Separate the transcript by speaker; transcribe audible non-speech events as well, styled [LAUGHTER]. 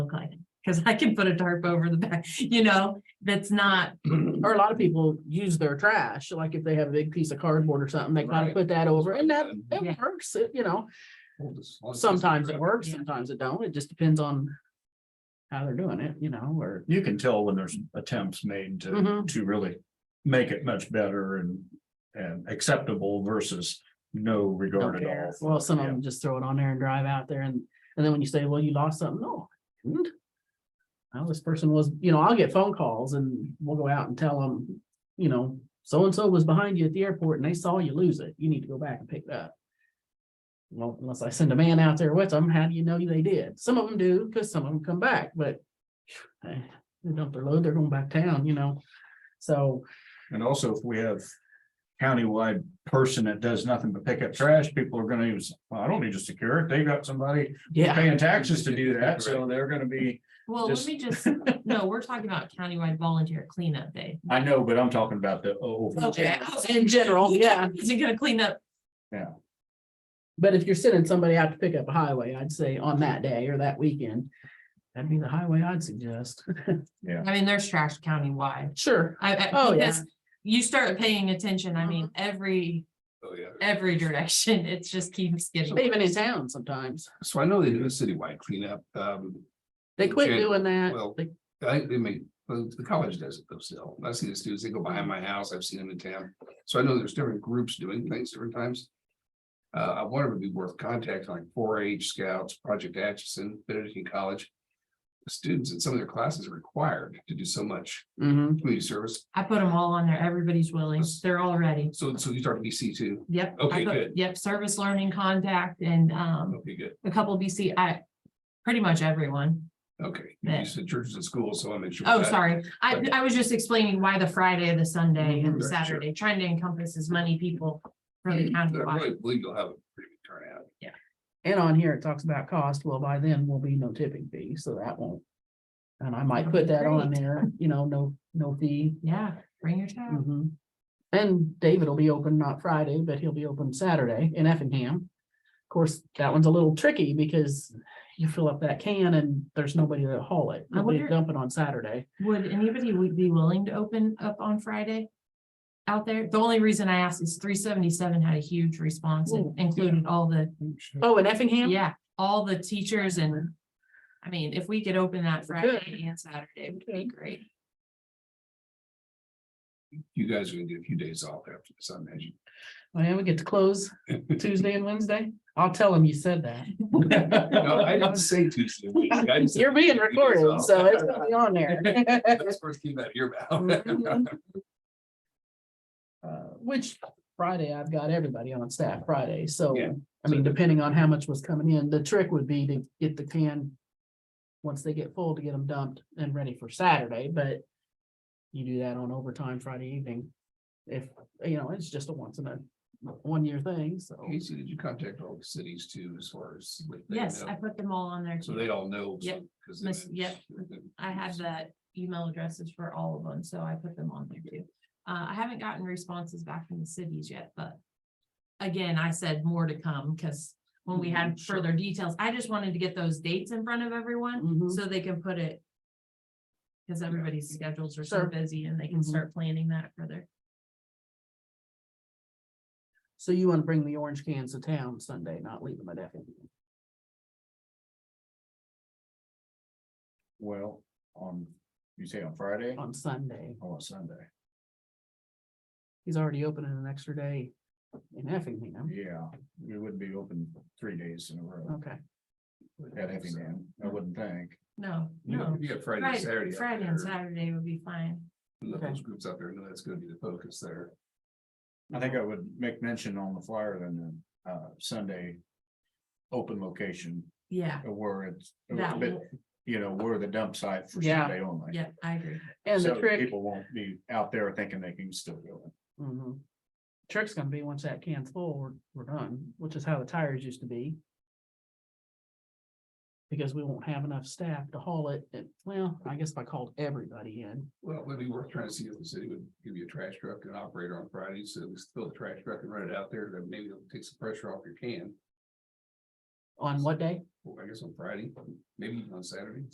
Speaker 1: Cause I can put a tarp over the back, you know, that's not,
Speaker 2: Or a lot of people use their trash, like if they have a big piece of cardboard or something, they kind
Speaker 3: Right.
Speaker 2: of put that over and that,
Speaker 1: Yeah.
Speaker 2: it works, it- you know,
Speaker 3: Well, this- well, this-
Speaker 2: [CLEARS THROAT] sometimes it works,
Speaker 1: Yeah.
Speaker 2: sometimes it don't, it just depends on how they're doing it, you know, or,
Speaker 3: You can tell when there's attempts made to,
Speaker 2: Mhm.
Speaker 3: to really make it much better and, and acceptable versus no
Speaker 2: don't
Speaker 3: regard at
Speaker 2: care.
Speaker 3: all.
Speaker 2: well, some of
Speaker 3: Yeah.
Speaker 2: them just throw it on there and drive out there and, and then when you say, well, you lost something, no. I didn't. Well, this person was, you know, I'll get phone calls and we'll go out and tell them, you know, so-and-so was behind you at the airport and they saw you lose it, you need to go back and pick it up. Well, unless I send a man out there with them, how do you know they did? Some of them do, because some of them come back, but [SIGHS] eh, they dump their load, they're going back town, you know, so.
Speaker 3: And also if we have countywide person that does nothing but pick up trash, people are gonna use, well, I don't need to secure it. They got somebody
Speaker 2: Yeah,
Speaker 3: paying taxes to do that, so they're gonna be,
Speaker 1: well, let
Speaker 3: Just-
Speaker 1: me just, no, we're talking about countywide volunteer cleanup day. [LAUGHS]
Speaker 3: I know, but I'm talking about the, oh.
Speaker 1: Okay.
Speaker 2: in general, yeah.
Speaker 1: Is it gonna clean up?
Speaker 2: But if you're sending somebody out to pick up a highway, I'd say on that day or that weekend, that'd be the highway I'd suggest. [LAUGHS]
Speaker 1: I mean, there's trash countywide.
Speaker 2: Sure.
Speaker 1: I, I,
Speaker 2: Oh, yeah. Uh-huh.
Speaker 1: because you start paying attention, I mean, every,
Speaker 4: Oh, yeah.
Speaker 1: every direction, [LAUGHS] it just keeps getting.
Speaker 2: Even in town sometimes.
Speaker 4: So I know they do a citywide cleanup. Um,
Speaker 2: They quit
Speaker 4: Okay,
Speaker 2: doing that.
Speaker 4: well-
Speaker 2: They-
Speaker 4: I think they make, well, the college does it though still. I see the students, they go behind my house. I've seen them in town. So I know there's different groups doing things different times. Uh, I wonder if it'd be worth contacting like four H scouts, Project Atchison, Benedictine College. Students in some of their classes are required to do so much
Speaker 2: Mhm.
Speaker 4: community service.
Speaker 1: I put them all on there. Everybody's willing. They're all ready.
Speaker 4: So, so you start BC too.
Speaker 1: Yep. I
Speaker 4: Okay,
Speaker 1: put-
Speaker 4: good.
Speaker 1: Yep, service learning contact and, um,
Speaker 4: Okay, good.
Speaker 1: a couple BC, I, pretty much everyone.
Speaker 4: Okay.
Speaker 1: Yeah.
Speaker 4: You said churches and schools, so I'll make sure.
Speaker 1: Oh,
Speaker 4: that-
Speaker 1: sorry. I, I was just explaining why the Friday, the Sunday and the
Speaker 4: Mhm, sure.
Speaker 1: Saturday, trying to encompass as many people for the
Speaker 4: I
Speaker 1: county.
Speaker 4: really believe you'll have a pretty big turnout.
Speaker 2: And on here, it talks about cost. Well, by then will be no tipping fee, so that won't. And I might put that on
Speaker 1: Great.
Speaker 2: there, you know, no, no fee.
Speaker 1: Yeah, bring your child.
Speaker 2: Mhm. And David will be open, not Friday, but he'll be open Saturday in Effingham. Of course, that one's a little tricky because you fill up that can and there's nobody to haul it.
Speaker 1: I
Speaker 2: Nobody to
Speaker 1: wonder-
Speaker 2: dump it on Saturday.
Speaker 4: Mm.
Speaker 1: Would anybody would be willing to open up on Friday? Out there? The only reason I asked is three seventy-seven had a huge response and included all the,
Speaker 2: Oh, in Effingham?
Speaker 1: yeah, all the teachers and. I mean, if we could open that Friday and Saturday, it would be
Speaker 2: Good.
Speaker 1: great.
Speaker 4: You guys are gonna get a few days off after this, I imagine.
Speaker 2: [LAUGHS] Well, we get to close Tuesday and Wednesday. I'll tell him you said that.
Speaker 4: No, I didn't say Tuesday. week. I just
Speaker 2: [LAUGHS]
Speaker 4: said
Speaker 2: You're being
Speaker 4: Tuesday,
Speaker 2: recorded, so
Speaker 4: [LAUGHS]
Speaker 2: it's gonna be on there. [LAUGHS]
Speaker 4: That's first came out of your mouth.
Speaker 2: Mhm. Uh, Which Friday, I've got everybody on staff Friday, so,
Speaker 4: Yeah.
Speaker 2: I mean, depending on how much was coming in, the trick would be to get the can. Once they get full, to get them dumped and ready for Saturday, but you do that on overtime Friday evening. If, you know, it's just a once in a, one year thing, so.
Speaker 4: [LAUGHS] Casey, did you contact all the cities too, as far as? what they
Speaker 1: Yes,
Speaker 4: know?
Speaker 1: I put them all on there.
Speaker 4: So
Speaker 1: too.
Speaker 4: they all know. so-
Speaker 1: Yep.
Speaker 4: 'cause then
Speaker 1: Miss-
Speaker 4: it's-
Speaker 1: I have the email addresses for all of them, so I put them on there too. Uh, I haven't gotten responses back from the cities yet, but. Again, I said more to come, because when we had
Speaker 4: Mm-hmm,
Speaker 2: Mhm, sure.
Speaker 1: further details, I just wanted to get those dates in front of everyone,
Speaker 4: Mm-hmm.
Speaker 2: Mhm.
Speaker 1: so they can put it. Because everybody's schedules are so
Speaker 2: Sure.
Speaker 1: busy and they can
Speaker 4: Mm-hmm.
Speaker 2: Mhm.
Speaker 1: start planning that further.
Speaker 2: So you wanna bring the orange cans to town Sunday, not leave them at E Effingham.
Speaker 3: Well, on, you say on Friday,
Speaker 2: on Sunday.
Speaker 3: or on Sunday?
Speaker 2: He's already opening an extra day in E, Effingham.
Speaker 3: Yeah, we wouldn't be open three days in a row
Speaker 2: Okay,
Speaker 3: at Effingham, I wouldn't think.
Speaker 1: No,
Speaker 4: You know,
Speaker 1: no.
Speaker 4: you got Friday, and
Speaker 1: Friday,
Speaker 4: Saturday. out
Speaker 1: Friday and
Speaker 4: there,
Speaker 1: Saturday would be fine.
Speaker 4: and let
Speaker 2: Okay.
Speaker 4: Those groups out there, know that's gonna be the focus there.
Speaker 3: I think I would make mention on the flyer then, uh, Sunday. Open location uh,
Speaker 1: Yeah,
Speaker 3: where it's,
Speaker 1: that,
Speaker 3: but,
Speaker 1: will-
Speaker 3: you know, we're the dump site for
Speaker 2: Yeah.
Speaker 3: Sunday only.
Speaker 1: yeah, I agree.
Speaker 2: and the
Speaker 3: So
Speaker 2: trick,
Speaker 3: people won't be out there thinking they can still go. in.
Speaker 2: mhm. trick's gonna be once that can's full, we're, we're done, which is how the tires used to be. Because we won't have enough staff to haul it, and, well, I guess if I called everybody in,
Speaker 4: Well, maybe we're trying to see if the city would give you a trash truck and operator on Friday, so we fill the trash truck and run it out there, then maybe it'll take some pressure off your can.
Speaker 2: on what day?
Speaker 4: Well, I guess on Friday, maybe on Saturday.